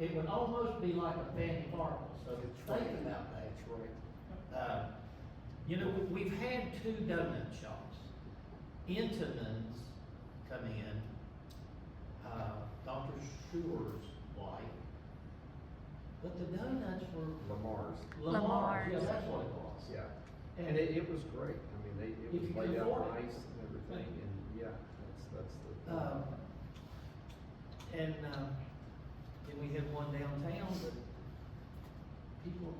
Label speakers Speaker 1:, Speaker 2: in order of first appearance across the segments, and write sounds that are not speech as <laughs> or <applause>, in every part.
Speaker 1: it would almost be like a family market, so
Speaker 2: That's
Speaker 1: think
Speaker 2: right.
Speaker 1: about that.
Speaker 2: That's right.
Speaker 1: Uh, You know, we- we've had two donut shops. Intamin's come in, uh, Dr. Schuer's wife. But the donuts were
Speaker 2: Lamar's,
Speaker 1: Lamar's, yeah,
Speaker 3: Lamar's.
Speaker 1: that's what it was.
Speaker 2: yeah. And it, it was great. I mean, they, it
Speaker 1: If you
Speaker 2: was
Speaker 1: can
Speaker 2: laid out
Speaker 1: afford it.
Speaker 2: nice and everything and yeah, that's, that's the.
Speaker 1: Um, and, um, then we had one downtown, but people,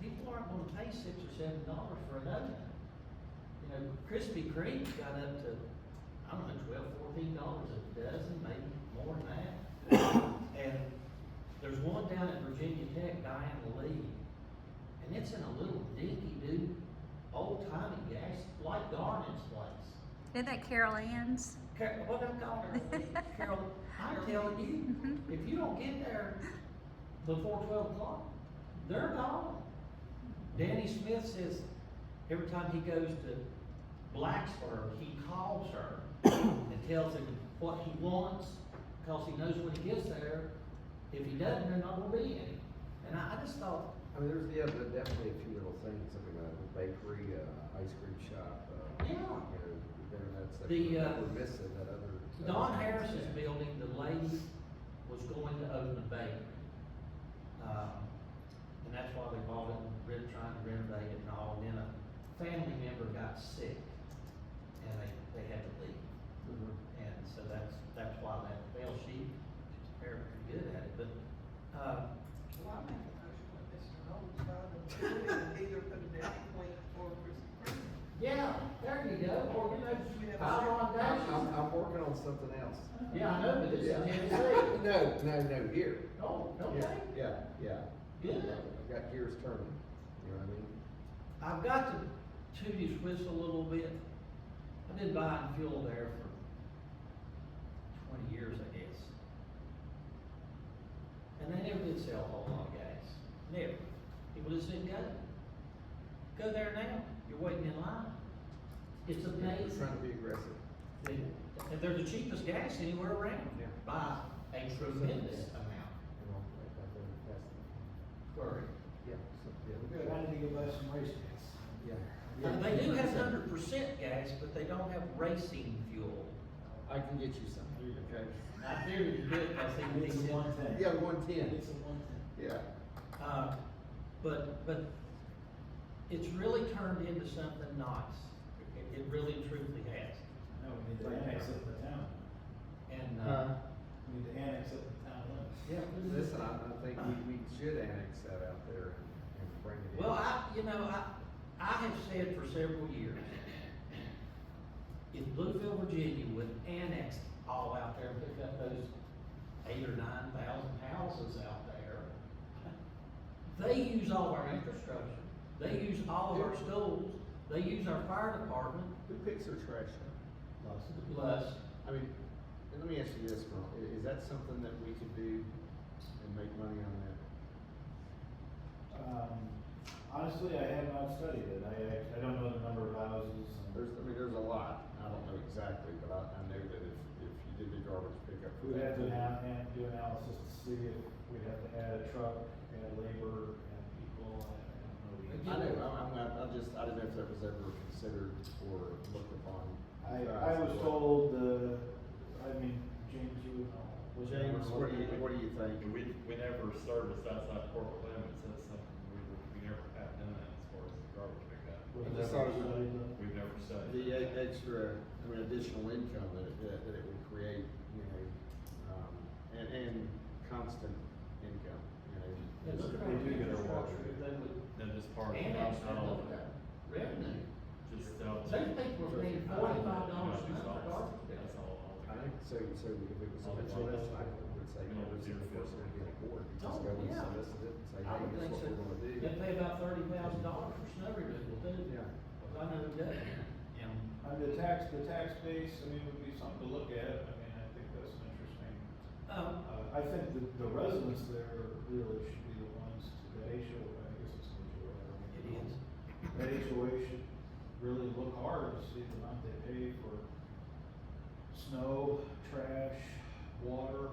Speaker 1: people aren't gonna pay six or seven dollars for a donut. You know, Krispy Kreme got up to, I don't know, twelve, fourteen dollars a dozen, maybe more than that. And there's one down at Virginia Tech, Diane Lee, and it's in a little dinky doo, old timey gas, like Garnet's place.
Speaker 3: Isn't that Carol Ann's?
Speaker 1: Carol, what I'm calling her, Carol, I'm telling you, if you don't get there before twelve o'clock, they're gone. Danny Smith says, every time he goes to Blacksburg, he calls her and tells him what he wants, cause he knows when he gets there, if he doesn't, there not gonna be any. And I, I just thought,
Speaker 2: I mean, there's, yeah, there are definitely a few little things, I mean, uh, the bakery, uh, ice cream shop, uh,
Speaker 1: Yeah.
Speaker 2: you know, there, that's, that
Speaker 1: The,
Speaker 2: we're-
Speaker 1: uh,
Speaker 2: that we're missing, that other. that
Speaker 1: Don
Speaker 2: other-
Speaker 1: Harris's building, the lady was going to open a bakery. Um, And that's why they bought it, and re- trying to renovate it and all, and then a family member got sick, and they, they had to leave.
Speaker 2: Mhm.
Speaker 1: And so that's, that's why that fell, she, she's very good at it, but, um,
Speaker 4: Well, I make a motion that Mr. Knowles buy the <laughs> building and either put a down payment or Krispy Kreme.
Speaker 1: yeah, there you go, or, you know,
Speaker 4: We have a
Speaker 1: pile on
Speaker 2: I'm, I'm,
Speaker 1: dashes.
Speaker 2: I'm working on something else.
Speaker 1: Yeah, I know, but it's in
Speaker 2: <laughs>
Speaker 1: <laughs> Tennessee.
Speaker 2: No, no, no, here.
Speaker 1: Oh, okay,
Speaker 2: Yeah, yeah, yeah.
Speaker 1: good.
Speaker 2: I've got gears turning, you know what I mean?
Speaker 1: I've got to toot his whistle a little bit. I've been buying fuel there for twenty years, I guess. And they never did sell a whole lot of gas, never. People just didn't go. Go there now, you're waiting in line. It's
Speaker 2: We're
Speaker 1: amazing.
Speaker 2: Trying to be aggressive.
Speaker 1: And and they're the cheapest gas anywhere around
Speaker 2: Yeah.
Speaker 1: by a tremendous amount.
Speaker 2: You know, like, I've been testing.
Speaker 1: Sorry.
Speaker 2: Yeah, so,
Speaker 5: We
Speaker 2: yeah.
Speaker 5: got to give us some race cars.
Speaker 2: Yeah.
Speaker 1: Uh, They do have hundred percent gas, but they don't have racing fuel.
Speaker 2: I can get you some, okay?
Speaker 1: I figured you could, I think
Speaker 5: It's a one thing.
Speaker 2: Yeah, one ten,
Speaker 5: It's a one thing.
Speaker 2: yeah.
Speaker 1: Uh, But, but it's really turned into something nice. It- It really truly has.
Speaker 5: No, we need to annex up the town.
Speaker 1: And,
Speaker 2: Uh-huh.
Speaker 1: uh,
Speaker 5: We need to annex up the town limits.
Speaker 2: Yeah, listen, I, I think we, we should annex that out there and, and bring it in.
Speaker 1: well, I, you know, I, I have said for several years, if Bluefield, Virginia would annex all out there and pick up those eight or nine thousand houses out there, they use all our infrastructure. They use all of our schools. They use our fire department,
Speaker 2: Who picks their trash up?
Speaker 1: plus
Speaker 2: I mean, and let me ask you this, Merle, i- is that something that we could do and make money on that?
Speaker 5: Um, honestly, I have not studied it. I, I, I don't know the number of houses and
Speaker 2: There's, I mean, there's a lot, I don't know exactly, but I, I know that if, if you did the garbage pickup.
Speaker 5: we'd have to now, and do analysis to see if we'd have to add a truck, add labor, and people, and I don't
Speaker 2: I
Speaker 5: know. the-
Speaker 2: know, I- I'm, I'm, I'm just, I didn't know if that was ever considered or looked upon.
Speaker 5: I, I was told, uh, I mean, James, you would know. was it-
Speaker 2: James, what do you, what do you think?
Speaker 6: We, we never service outside corporate limits, that's something we, we never have done that as far as the garbage pickup.
Speaker 5: Was
Speaker 2: I
Speaker 5: it
Speaker 2: just thought it
Speaker 5: ever
Speaker 2: was-
Speaker 5: studied?
Speaker 6: We've never studied.
Speaker 2: The e-
Speaker 6: that.
Speaker 2: extra, I mean, additional income that it, that- that it would create, you know, um, and, and constant income,
Speaker 1: Yeah,
Speaker 2: you
Speaker 1: look
Speaker 2: know.
Speaker 1: at
Speaker 2: just-
Speaker 1: our
Speaker 5: They do get their water.
Speaker 1: infrastructure, if they would
Speaker 6: Then just part of,
Speaker 1: annex
Speaker 6: not
Speaker 1: that,
Speaker 6: all
Speaker 1: look
Speaker 6: of
Speaker 1: at that
Speaker 6: it,
Speaker 1: revenue.
Speaker 6: just sell.
Speaker 1: They think we're paying forty-five dollars an hour for garbage
Speaker 6: That's
Speaker 1: pickup.
Speaker 6: all.
Speaker 2: I think, so, so if it was
Speaker 6: Oh,
Speaker 2: a
Speaker 6: it's
Speaker 2: law,
Speaker 6: all-
Speaker 2: I would say,
Speaker 6: you
Speaker 2: you
Speaker 6: know,
Speaker 2: know, it's
Speaker 6: zero
Speaker 2: enforced, it'd be a board, you
Speaker 1: Oh,
Speaker 2: just go and
Speaker 1: yeah.
Speaker 2: solicit it and say,
Speaker 1: I
Speaker 2: hey,
Speaker 1: would
Speaker 2: this is
Speaker 1: think
Speaker 2: what
Speaker 1: so.
Speaker 2: we're gonna do.
Speaker 1: They pay about thirty thousand dollars for snow removal, too.
Speaker 2: Yeah.
Speaker 1: Well, I know they do. And,
Speaker 5: Uh, the tax, the tax base, I mean, would be something to look at, I mean, I think that's an interesting,
Speaker 1: um,
Speaker 5: uh, I think the, the residents there really should be the ones, to- that HOA, I guess it's an HOA. I don't
Speaker 1: it
Speaker 5: know.
Speaker 1: is.
Speaker 5: That HOA should really look hard to see the amount they pay for snow, trash, water,